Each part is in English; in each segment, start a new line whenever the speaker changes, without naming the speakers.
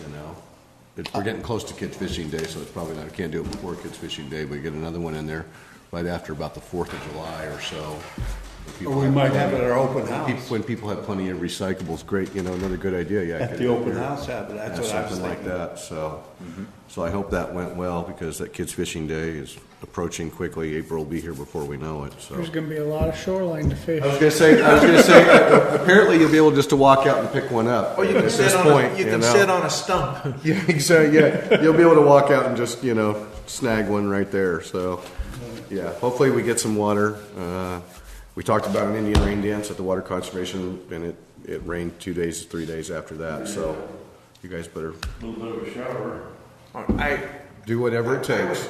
you know? It's, we're getting close to kids fishing day, so it's probably not, can't do it before kids fishing day, but get another one in there right after about the Fourth of July or so.
Or we might have it at our open house.
When people have plenty of recyclables, great, you know, another good idea, yeah.
At
get
the
it in
open
there.
house, have it, that's
Yeah,
what I was
something like
thinking.
that, so, so I hope that went well, because that kids fishing day is approaching quickly, April will be here before we know it, so.
There's gonna be a lot of shoreline to fish.
I was gonna say, I was gonna say, apparently you'll be able just to walk out and pick one up.
Or Oh, you can
at
sit
this
on,
point,
a- you can
know.
sit on a stump.
Yeah, exactly, yeah, you'll be able to walk out and just, you know, snag one right there, so, yeah, hopefully we get some water. Uh, We talked about an Indian rain dance at the Water Conservation, and it, it rained two days, three days after that, so you guys better
I,
do whatever it takes.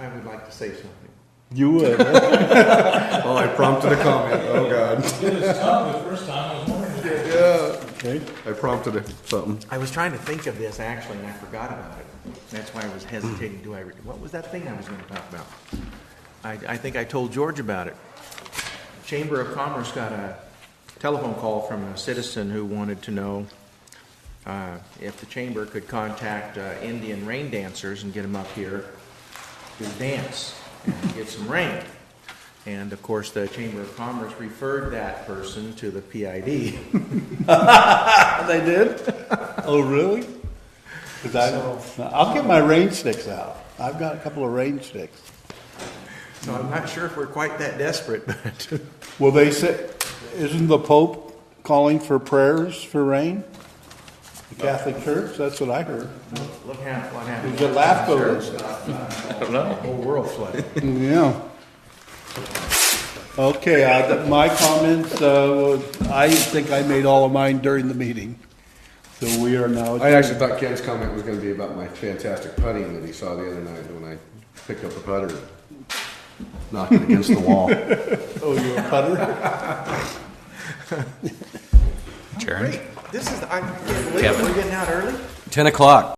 I would like to say something.
You would.
Oh, I prompted a comment. Oh, God.
It was tough the first time, I was wondering.
I prompted a- something.
I was trying to think of this actually, and I forgot about it. That's why I was hesitating. Do I, re- what was that thing I was gonna talk about? I, I think I told George about it. Chamber of Commerce got a telephone call from a citizen who wanted to know uh, if the chamber could contact uh, Indian rain dancers and get them up here to dance and get some rain. And of course, the Chamber of Commerce referred that person to the PID.
They did? Oh, really? 'Cause I, I'll get my rain sticks out. I've got a couple of rain sticks.
So I'm not sure if we're quite that desperate, but.
Well, they say, isn't the Pope calling for prayers for rain? The Catholic Church, that's what I heard.
Look how, what
It
happened.
was at LAFCO.
I don't know. Whole world flooded.
Yeah. Okay, I, my comments, uh, I think I made all of mine during the meeting. So we are now.
I actually thought Ken's comment was gonna be about my fantastic putting that he saw the other night when I picked up a putter. and Knocked it against the wall.
Oh, you're a putter?
Great. This is, I can't believe it. We're getting out early?
Ten o'clock.